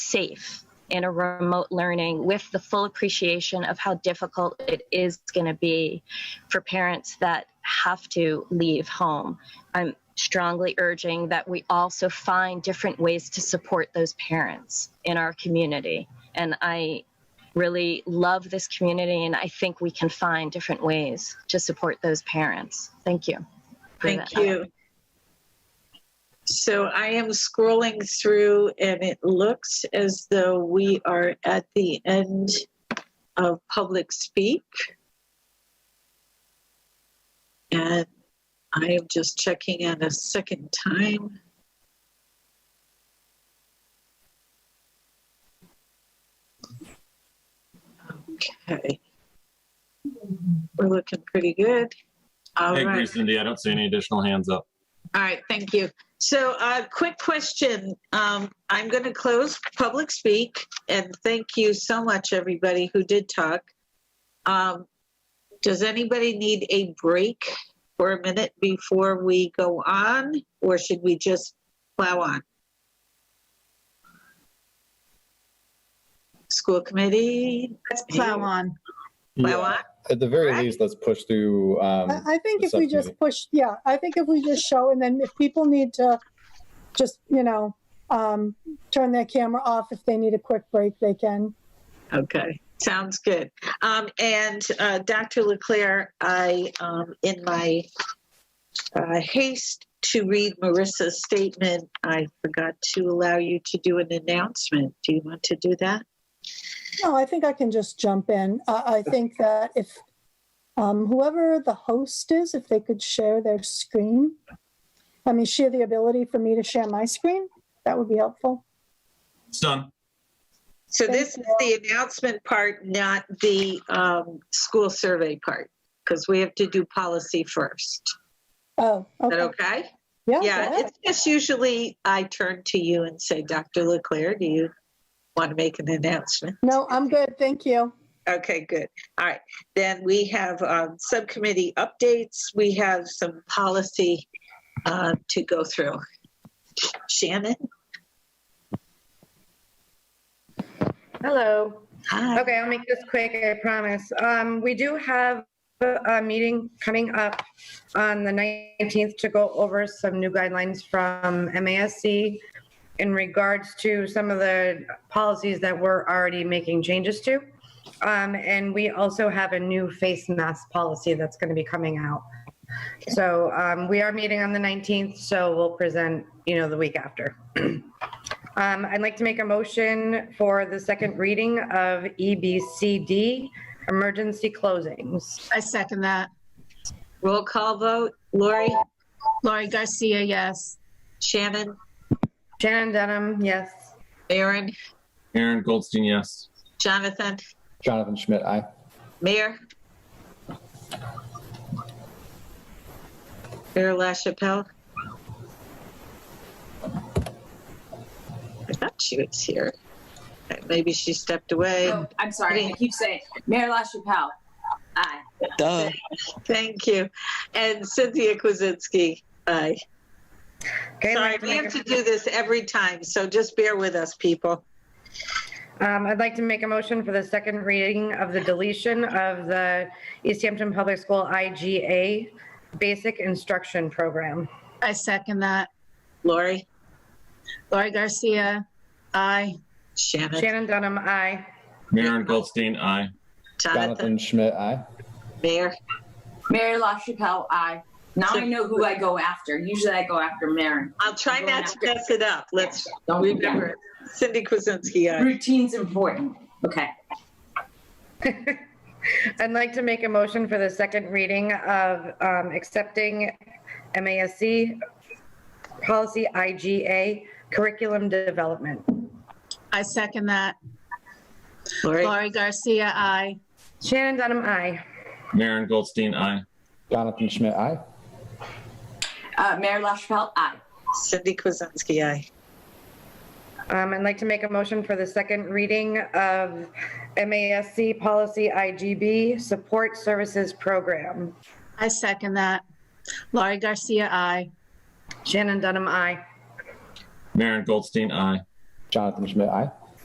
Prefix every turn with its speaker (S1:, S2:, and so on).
S1: safe in a remote learning with the full appreciation of how difficult it is going to be for parents that have to leave home. I'm strongly urging that we also find different ways to support those parents in our community. And I really love this community, and I think we can find different ways to support those parents. Thank you. for
S2: Thank
S1: that.
S2: you. So I am scrolling through and it looks as though we are at the end of public speak. And I am just checking in a second time. Okay. We're looking pretty good. All
S3: I
S2: right.
S3: agree, Cindy. I don't see any additional hands up.
S2: All right, thank you. So, uh, quick question. Um, I'm going to close public speak and thank you so much, everybody who did talk. Um, does anybody need a break for a minute before we go on, or should we just plow on? School committee?
S4: Let's plow on.
S2: Plow on?
S5: At the very
S2: Correct?
S5: least, let's push through, um,
S6: I, I think
S5: the
S6: if we just
S5: subcommittee.
S6: push, yeah, I think if we just show, and then if people need to just, you know, um, turn their camera off if they need a quick break, they can.
S2: Okay, sounds good. Um, and, uh, Dr. Leclaire, I, um, in my, uh, haste to read Marissa's statement, I forgot to allow you to do an announcement. Do you want to do that?
S6: No, I think I can just jump in. I, I think that if um, whoever the host is, if they could share their screen, I mean, share the ability for me to share my screen, that would be helpful.
S3: It's done.
S2: So this is the announcement part, not the, um, school survey part, because we have to do policy first.
S6: Oh,
S2: Is that
S6: okay.
S2: okay?
S6: Yeah, go
S2: Yeah,
S6: ahead.
S2: it's just usually I turn to you and say, Dr. Leclaire, do you want to make an announcement?
S6: No, I'm good. Thank you.
S2: Okay, good. All right. Then we have um, subcommittee updates. We have some policy uh, to go through. Shannon?
S7: Hello.
S2: Hi.
S7: Okay, I'll make this quick, I promise. Um, we do have a a meeting coming up on the 19th to go over some new guidelines from MASC in regards to some of the policies that we're already making changes to. Um, and we also have a new face mask policy that's going to be coming out. So, um, we are meeting on the 19th, so we'll present, you know, the week after. Um, I'd like to make a motion for the second reading of E EBCD, emergency closings.
S4: I second that.
S2: Roll call vote. Lori,
S4: Laurie Garcia, yes.
S2: Shannon,
S7: Shannon Dunham, yes.
S2: Aaron,
S3: Aaron Goldstein, yes.
S2: Jonathan,
S5: Jonathan Schmidt, aye.
S2: Mayor. Mayor LaChapelle. I thought she was here. Maybe she stepped away.
S8: Oh, I'm sorry. I keep saying Mayor LaChapelle. Aye.
S2: Thank you. And Cynthia Kuzinski, aye.
S7: Okay, I'd
S2: Sorry,
S7: like to
S2: we
S7: make
S2: have
S7: a-
S2: to do this every time, so just bear with us, people.
S7: Um, I'd like to make a motion for the second reading of the deletion of the East Hampton Public School IGA Basic Instruction Program.
S4: I second that.
S2: Lori,
S4: Laurie Garcia, aye.
S2: Shannon,
S7: Shannon Dunham, aye.
S3: Aaron Goldstein, aye.
S2: Jonathan,
S5: Jonathan Schmidt, aye.
S2: Mayor.
S8: Mayor LaChapelle. Aye. Now I know who I go after. Usually I go after Mayor.
S2: I'll try not to mess it up. Let's
S8: Don't
S2: remember it. Cindy uh, Kuzinski, aye.
S8: Routine's important. Okay.
S7: I'd like to make a motion for the second reading of um, accepting MASC policy IGA curriculum development.
S4: I second that.
S2: Lori,
S4: Laurie Garcia, aye.
S7: Shannon Dunham, aye.
S3: Aaron Goldstein, aye.
S5: Jonathan Schmidt, aye.
S8: Uh, Mayor LaChapelle. Aye.
S2: Cindy Kuzinski, aye.
S7: Um, I'd like to make a motion for the second reading of MASC policy IGB support services program.
S4: I second that. Laurie Garcia, aye.
S7: Shannon Dunham, aye.
S3: Aaron Goldstein, aye.
S5: Jonathan Schmidt, aye.